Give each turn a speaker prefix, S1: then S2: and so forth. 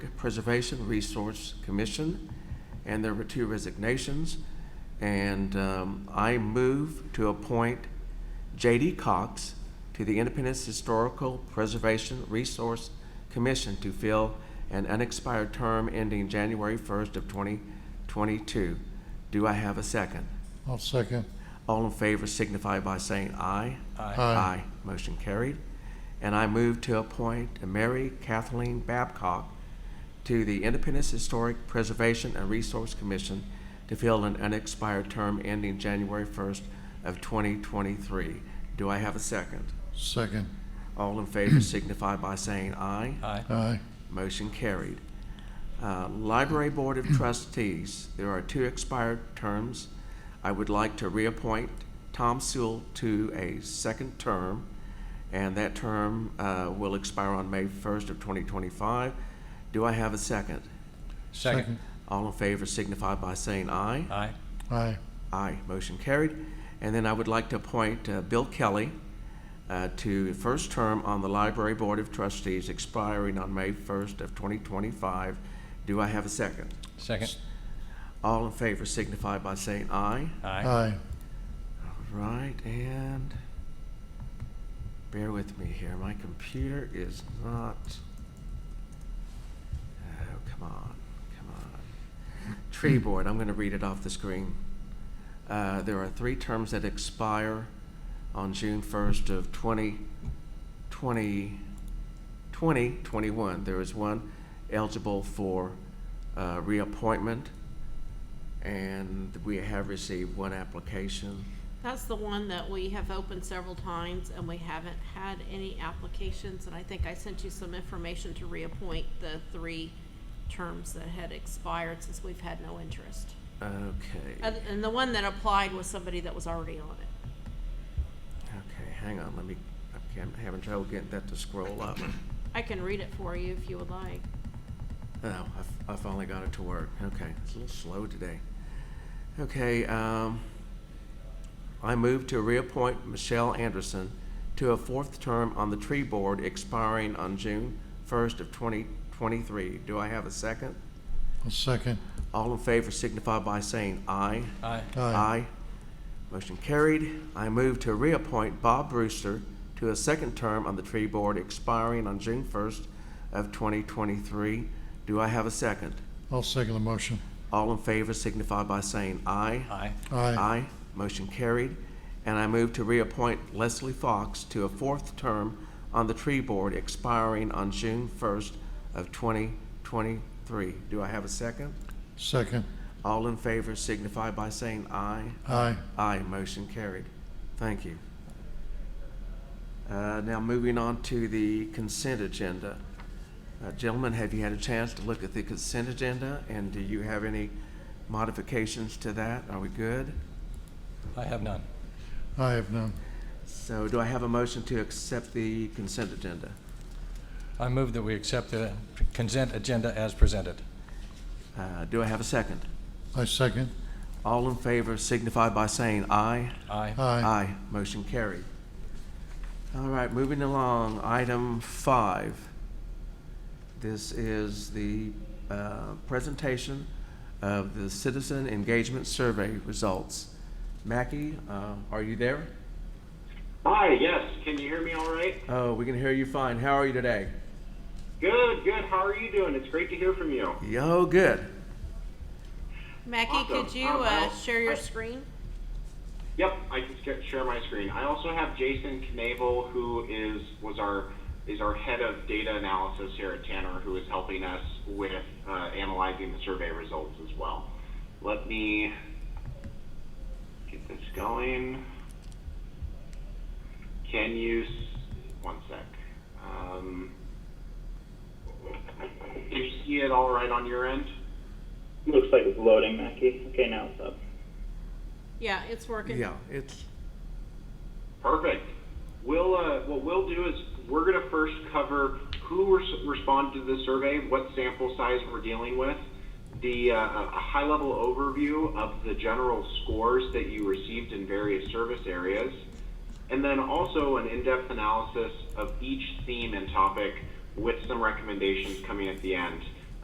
S1: Preservation Resource Commission, and there were two resignations. And um, I move to appoint J.D. Cox to the Independence Historical Preservation Resource Commission to fill an unexpired term ending January 1st of 2022. Do I have a second?
S2: I'll second.
S1: All in favor signify by saying aye.
S2: Aye. Aye.
S1: Motion carried. And I move to appoint Mary Kathleen Babcock to the Independence Historic Preservation and Resource Commission to fill an unexpired term ending January 1st of 2023. Do I have a second?
S2: Second.
S1: All in favor signify by saying aye.
S3: Aye.
S2: Aye.
S1: Motion carried. Uh, Library Board of Trustees, there are two expired terms. I would like to reappoint Tom Sewell to a second term, and that term uh, will expire on May 1st of 2025. Do I have a second?
S3: Second.
S1: All in favor signify by saying aye.
S3: Aye.
S2: Aye.
S1: Aye, motion carried. And then I would like to appoint uh, Bill Kelly uh, to first term on the Library Board of Trustees expiring on May 1st of 2025. Do I have a second?
S3: Second.
S1: All in favor signify by saying aye.
S3: Aye.
S2: Aye.
S1: Right, and bear with me here, my computer is not, oh, come on, come on. Tree Board, I'm gonna read it off the screen. Uh, there are three terms that expire on June first of twenty, twenty, twenty, twenty-one. There is one eligible for, uh, reappointment, and we have received one application.
S4: That's the one that we have opened several times and we haven't had any applications. And I think I sent you some information to reappoint the three terms that had expired since we've had no interest.
S1: Okay,
S4: And, and the one that applied was somebody that was already on it.
S1: okay, hang on, let me, okay, I'm having trouble getting that to scroll up.
S4: I can read it for you if you would like.
S1: Oh, I, I finally got it to work, okay, it's a little slow today. Okay, um, I move to reappoint Michelle Anderson to a fourth term on the tree board expiring on June first of twenty twenty-three. Do I have a second?
S2: I'll second.
S1: All in favor signify by saying aye.
S3: Aye.
S2: Aye.
S1: Motion carried. I move to reappoint Bob Brewster to a second term on the tree board expiring on June first of twenty twenty-three. Do I have a second?
S2: I'll second the motion.
S1: All in favor signify by saying aye.
S3: Aye.
S2: Aye.
S1: Motion carried. And I move to reappoint Leslie Fox to a fourth term on the tree board expiring on June first of twenty twenty-three. Do I have a second?
S2: Second.
S1: All in favor signify by saying aye.
S2: Aye.
S1: Aye, motion carried. Thank you. Uh, Now, moving on to the consent agenda. Uh, Gentlemen, have you had a chance to look at the consent agenda, and do you have any modifications to that? Are we good?
S3: I have none.
S2: I have none.
S1: So do I have a motion to accept the consent agenda?
S3: I move that we accept the consent agenda as presented.
S1: Uh, Do I have a second?
S2: I second.
S1: All in favor signify by saying aye.
S3: Aye.
S2: Aye.
S1: Aye, motion carried. All right, moving along, item five. This is the uh, presentation of the Citizen Engagement Survey results. Mackey, uh, are you there?
S5: Hi, yes. Can you hear me all right?
S1: Oh, we can hear you fine. How are you today?
S5: Good, good. How are you doing? It's great to hear from you.
S1: Yo, good.
S4: Mackie, could
S5: Awesome.
S4: you,
S5: Um,
S4: uh,
S5: I'll-
S4: share your
S5: I-
S4: screen?
S5: Yep, I can sh- share my screen. I also have Jason Knabel, who is was our is our head of data analysis here at Tanner, who is helping us with uh, analyzing the survey results as well. Let me get this going. Can you? s- One sec. Um, do you see it all right on your end?
S6: Looks like it's loading, Mackie. Okay, now it's up.
S4: Yeah, it's working.
S1: Yeah, it's,
S5: Perfect. We'll, uh, what we'll do is we're going to first cover who res- responded to the survey, what sample size we're dealing with, the uh, a high level overview of the general scores that you received in various service areas, and then also an in depth analysis of each theme and topic with some recommendations coming at the end.